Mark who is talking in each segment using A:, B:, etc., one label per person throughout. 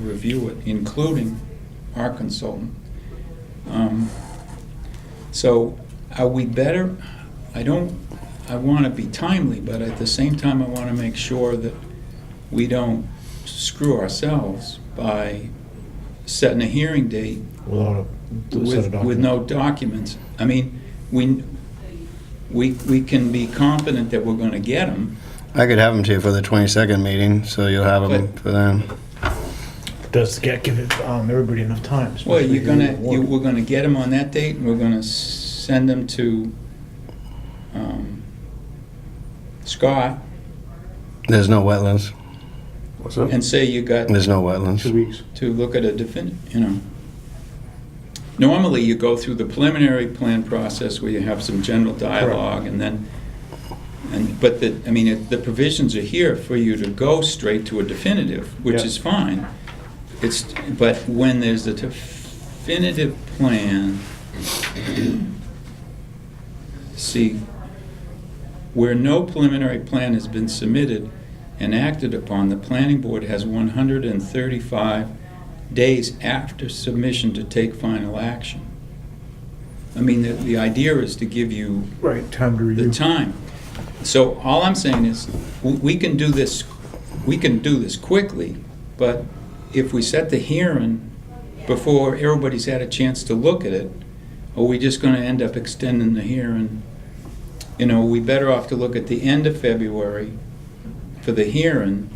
A: review it, including our consultant. Um, So are we better, I don't, I want to be timely, but at the same time, I want to make sure that we don't screw ourselves by setting a hearing date
B: without a set of
A: with, with no documents. I mean, we, we, we can be confident that we're going to get them,
C: I could have them to you for the 22nd meeting, so you'll have them
A: Good.
C: for then.
B: documents. Does get, give it, um, everybody enough time?
A: Well,
B: especially
A: you're gonna,
B: if
A: you,
B: you-
A: we're gonna get them on that date, and we're gonna s- send them to, um, Scott
C: There's no wetlands.
D: What's that?
A: and say you got
C: There's no wetlands.
D: Two weeks.
A: to look at a defin, you know. Normally, you go through the preliminary plan process where you have some general dialogue, and then, and, but the, I mean, it- the provisions are here for you to go straight to a definitive, which
B: Yeah.
A: is fine. It's, but when there's a definitive plan, see, where no preliminary plan has been submitted and acted upon, the planning board has 135 days after submission to take final action. I mean, the, the idea is to give you
B: Right, time to
A: the
B: review.
A: time. So all I'm saying is, w- we can do this, we can do this quickly, but if we set the hearing before everybody's had a chance to look at it, are we just gonna end up extending the hearing? You know, we better off to look at the end of February for the hearing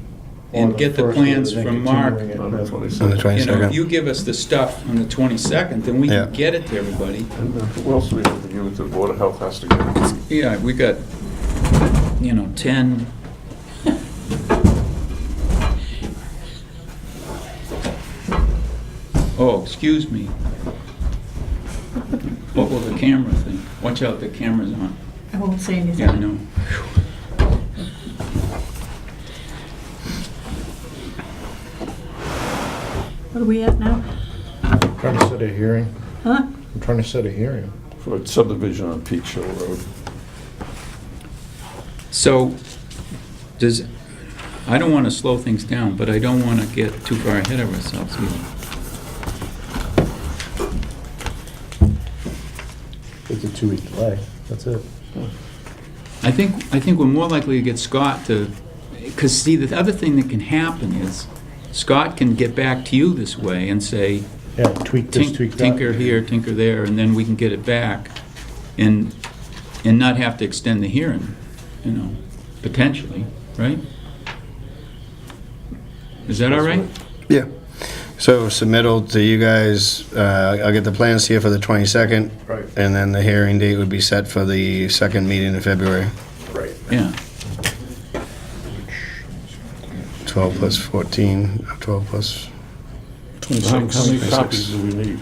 B: Or
A: and get the
B: first one,
A: plans
B: then
A: from Mark.
B: continuing it.
D: On the
C: On the
D: 22nd.
A: You know, if
C: 22nd.
A: you give us the stuff on the twenty-second, then we
C: Yeah.
A: can get it to everybody.
D: And then who else do we have to give it to? Board of Health has to give it.
A: Yeah, we got, you know, ten, Oh, excuse me. What will the camera think? Watch out, the camera's on.
E: I won't say anything.
A: Yeah, I know.
E: What are we at now?
B: Trying to set a hearing.
E: Huh?
B: I'm trying to set a hearing.
D: For a subdivision on Peach Hill Road.
A: So, does, I don't want to slow things down, but I don't want to get too far ahead of ourselves either.
B: It's a two-week delay, that's it.
A: I think, I think we're more likely to get Scott to, because see, the other thing that can happen is Scott can get back to you this way and say,
B: Yeah, tweak this,
A: tink-
B: tweak that.
A: tinker here, tinker there, and then we can get it back and, and not have to extend the hearing, you know, potentially, right? Is that all right?
C: Yeah. So submittal to you guys, uh, I'll get the plans here for the 22nd.
B: Right.
C: And then the hearing date would be set for the second meeting in February.
B: Right.
A: Yeah.
C: 12 plus 14, 12 plus,
D: How how many copies do we need?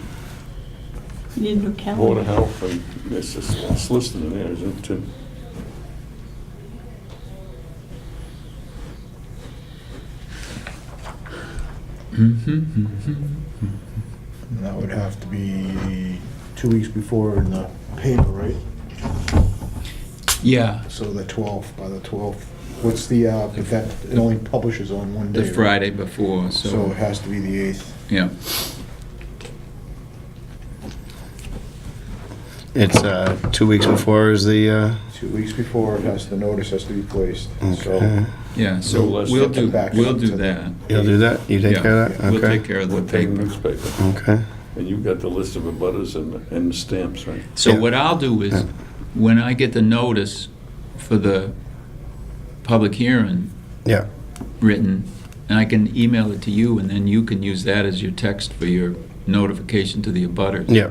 E: You need a new
D: Board
E: calendar.
D: of Health, and it's just, it's listed in there, isn't it, Tim?
B: And that would have to be two weeks before in the paper, right?
A: Yeah,
B: So the 12th, by the 12th, what's the, uh, but that, it only publishes on one day.
A: the
B: right?
A: Friday before,
B: So it
A: so,
B: has to be the 8th.
A: yeah.
C: it's uh, two weeks before is the, uh,
B: Two weeks before, it has, the notice has to be placed, so.
C: okay.
A: Yeah, so
D: So let's
A: we'll
D: get
A: do,
B: back
A: we'll
B: to-
A: do that.
C: uh, You'll do that? You take
A: Yeah,
C: care of that?
A: We'll
C: Okay.
A: take care of the
D: We'll take the
A: paper.
D: newspaper.
C: Okay.
D: And you've got the list of abutters and, and the stamps, right?
A: So
C: Yeah.
A: what I'll do is,
C: Yeah.
A: when I get the notice for the public hearing
C: Yeah.
A: written, and I can email it to you, and then you can use that as your text for your notification to the abutters.
C: Yeah.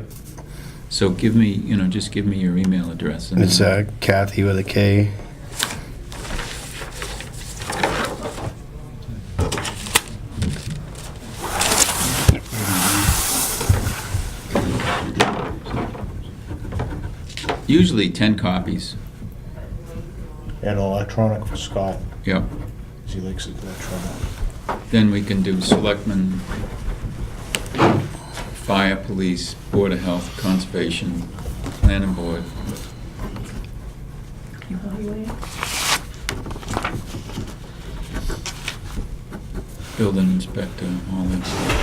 A: So give me, you know, just give me your email address. and
C: It's
A: then-
C: uh, Kathy with a K.
A: Usually 10 copies,
B: And electronic for Scott,
A: yeah.
B: 'cause he likes it electronic.
A: Then we can do selectmen, fire, police, board of health, conservation, planning board.
E: Evaluate.
A: building inspector, all that stuff.